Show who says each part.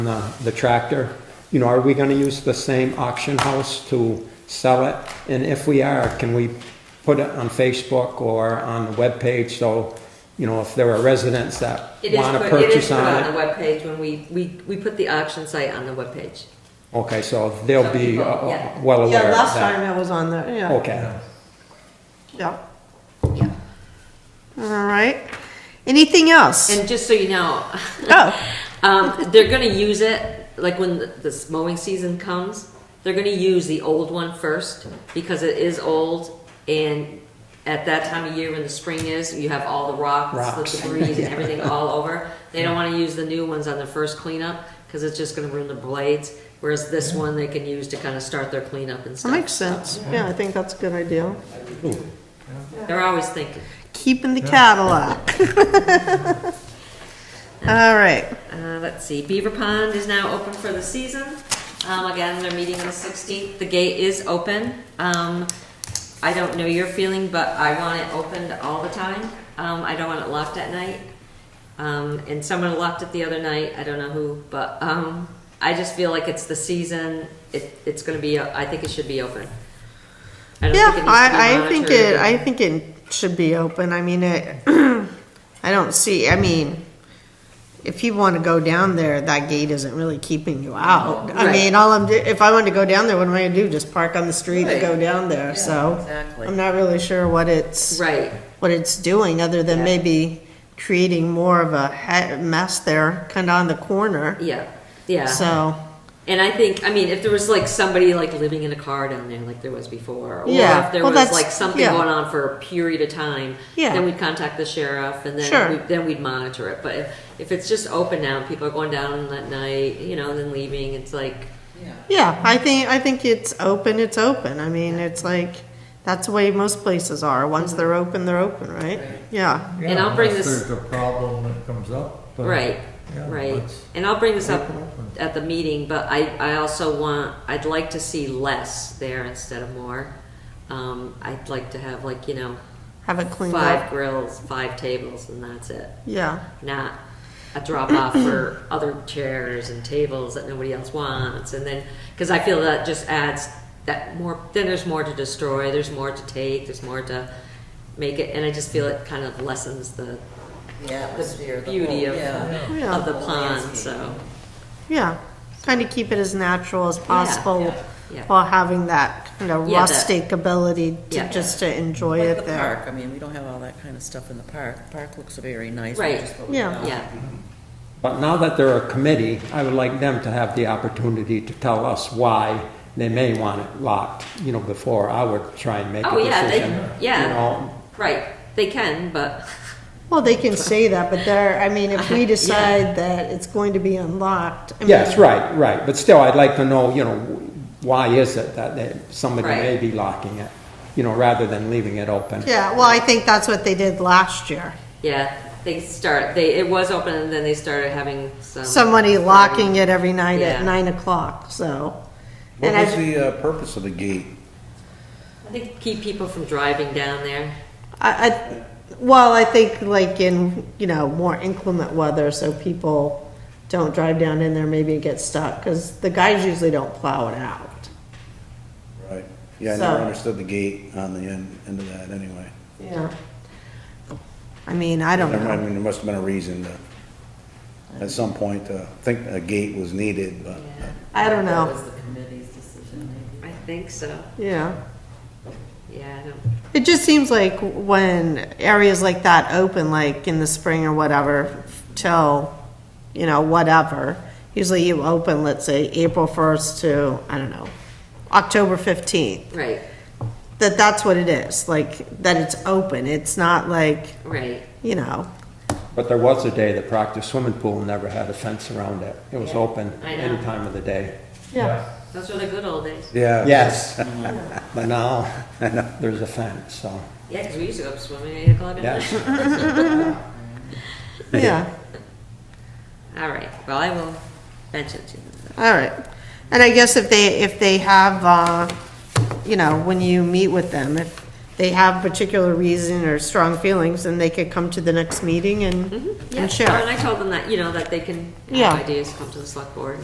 Speaker 1: the uh, the tractor, you know, are we gonna use the same auction house to sell it? And if we are, can we put it on Facebook or on the webpage, so, you know, if there are residents that
Speaker 2: It is
Speaker 1: wanna
Speaker 2: put, it is
Speaker 1: purchase
Speaker 2: put on
Speaker 1: on
Speaker 2: the
Speaker 1: it?
Speaker 2: webpage when we, we, we put the auction site on the webpage.
Speaker 1: Okay, so they'll
Speaker 2: Some
Speaker 1: be uh,
Speaker 2: people,
Speaker 1: uh,
Speaker 2: yeah.
Speaker 1: well
Speaker 3: Yeah,
Speaker 1: aware of
Speaker 3: last
Speaker 1: that.
Speaker 3: time it was on there, yeah.
Speaker 1: Okay,
Speaker 3: Yeah. All right. Anything else?
Speaker 2: And just so you know,
Speaker 3: Oh,
Speaker 2: um, they're gonna use it, like when the- this mowing season comes, they're gonna use the old one first, because it is old, and at that time of year when the spring is, you have all the rocks,
Speaker 1: Rocks.
Speaker 2: the debris and everything all over. They don't wanna use the new ones on the first cleanup, cause it's just gonna ruin the blades, whereas this one they can use to kinda start their cleanup and
Speaker 3: that
Speaker 2: stuff.
Speaker 3: makes sense. Yeah, I think that's a good idea.
Speaker 2: They're always thinking.
Speaker 3: Keeping the Cadillac. All right.
Speaker 2: Uh, let's see, Beaver Pond is now open for the season. Um, again, they're meeting on the sixteenth, the gate is open. Um, I don't know your feeling, but I want it opened all the time. Um, I don't want it locked at night. Um, and someone locked it the other night, I don't know who, but, um, I just feel like it's the season, it, it's gonna be, I think it should be open. I don't
Speaker 3: Yeah,
Speaker 2: think it needs to be
Speaker 3: I, I think
Speaker 2: monitored.
Speaker 3: it, I think it should be open. I mean, it, I don't see, I mean, if you want to go down there, that gate isn't really keeping you out. I
Speaker 2: Right.
Speaker 3: mean, all I'm, do- if I wanted to go down there, what am I gonna do? Just park on the street and go
Speaker 2: Right.
Speaker 3: down there, so.
Speaker 2: exactly.
Speaker 3: I'm not really sure what it's.
Speaker 2: Right,
Speaker 3: what it's doing, other than
Speaker 2: Yeah.
Speaker 3: maybe creating more of a ha- mess there, kind of on the corner.
Speaker 2: yeah, yeah.
Speaker 3: So,
Speaker 2: And I think, I mean, if there was like somebody like living in a car down there, like there was before, or
Speaker 3: Yeah.
Speaker 2: if there
Speaker 3: Well,
Speaker 2: was
Speaker 3: that's-
Speaker 2: like something
Speaker 3: yeah.
Speaker 2: going on for a period of time,
Speaker 3: Yeah.
Speaker 2: then we'd contact the sheriff, and then
Speaker 3: Sure.
Speaker 2: we, then we'd monitor it. But if, if it's just open now, and people are going down that night, you know, and then leaving, it's like,
Speaker 3: yeah, I think I think it's open. It's open. I mean, it's like that's the way most places are. Once they're open, they're open, right? Yeah.
Speaker 2: And I'll bring
Speaker 4: unless
Speaker 2: this-
Speaker 4: There's a problem that comes up. but-
Speaker 2: right,
Speaker 4: yeah,
Speaker 2: right.
Speaker 4: let's-
Speaker 2: And I'll bring this up
Speaker 4: Open, open.
Speaker 2: at the meeting, but I, I also want, I'd like to see less there instead of more. Um, I'd like to have like you know
Speaker 3: Have it cleaned
Speaker 2: five
Speaker 3: up.
Speaker 2: grills, five tables, and that's it.
Speaker 3: Yeah.
Speaker 2: not a drop off for other chairs and tables that nobody else wants. And then, because I feel that just adds that more, then there's more to destroy, there's more to take, there's more to make it, and I just feel it kind of lessens the,
Speaker 5: the atmosphere,
Speaker 2: the
Speaker 5: the
Speaker 2: beauty
Speaker 5: whole-
Speaker 2: of,
Speaker 5: yeah.
Speaker 3: Yeah.
Speaker 2: of the pond, so.
Speaker 3: Yeah. Kind of keep it as natural as possible.
Speaker 5: yeah,
Speaker 2: yeah.
Speaker 3: While having that kind of
Speaker 2: Yeah, that-
Speaker 3: rustic ability to
Speaker 2: Yeah.
Speaker 3: just to enjoy
Speaker 5: Like
Speaker 3: it
Speaker 5: the
Speaker 3: there.
Speaker 5: park, I mean, we don't have all that kind of stuff in the park. The Park looks very nice.
Speaker 2: Right.
Speaker 5: which is what we
Speaker 3: Yeah.
Speaker 5: got.
Speaker 2: Yeah,
Speaker 1: but now that they're a committee, I would like them to have the opportunity to tell us why they may want it locked, you know, before I would try and make a
Speaker 2: Oh, yeah, they-
Speaker 1: decision.
Speaker 2: yeah.
Speaker 1: You know,
Speaker 2: right, they can, but,
Speaker 3: Well, they can say that, but there, I mean, if we decide that it's going to be unlocked. I mean,
Speaker 1: Yes, right, right, but still, I'd like to know, you know, why is it that they- somebody may
Speaker 2: Right.
Speaker 1: be locking it, you know, rather than leaving it open?
Speaker 3: Yeah, well, I think that's what they did last year.
Speaker 2: yeah, they start, they, it was open and then they started having some.
Speaker 3: Somebody locking it every night
Speaker 2: Yeah.
Speaker 3: at nine o'clock, so.
Speaker 6: What
Speaker 3: And
Speaker 6: was
Speaker 3: I,
Speaker 6: the uh, purpose of the gate?
Speaker 2: I think keep people from driving down there.
Speaker 3: I, I, well, I think like in, you know, more inclement weather, so people don't drive down in there, maybe get stuck, because the guys usually don't plow it out.
Speaker 6: Right. Yeah, I
Speaker 3: So-
Speaker 6: never understood the gate on the end, end of that anyway.
Speaker 3: Yeah. I mean, I don't
Speaker 6: Never mind, I
Speaker 3: know.
Speaker 6: mean, there must have been a reason to, at some point, to think a gate was needed, but
Speaker 2: Yeah,
Speaker 3: I don't
Speaker 5: That
Speaker 3: know,
Speaker 5: was the committee's decision, maybe.
Speaker 2: I think so,
Speaker 3: yeah.
Speaker 2: yeah, I don't.
Speaker 3: It just seems like when areas like that open, like in the spring or whatever, till, you know, whatever, usually you open, let's say, April 1st to, I don't know, October 15th,
Speaker 2: Right,
Speaker 3: that that's what it is, like, that it's open. It's not like,
Speaker 2: right.
Speaker 3: you know,
Speaker 1: But there was a day that Proctor Swimming Pool never had a fence around it. It was open
Speaker 2: I know.
Speaker 1: any time of the day.
Speaker 3: yeah,
Speaker 2: Those were the good old days.
Speaker 6: yeah.
Speaker 1: Yes, but now, there's a fence, so,
Speaker 2: Yeah, because we used to go up swimming at 8 o'clock at
Speaker 1: yes.
Speaker 2: night.
Speaker 3: yeah,
Speaker 2: All right, well, I will mention to them.
Speaker 3: all right. And I guess if they, if they have, uh, you know, when you meet with them, if they have particular reason or strong feelings, and they could come to the next meeting and,
Speaker 2: Yeah,
Speaker 3: and
Speaker 2: sure, and
Speaker 3: share.
Speaker 2: I told them that, you know, that they can
Speaker 3: Yeah.
Speaker 2: have ideas, come to the select board.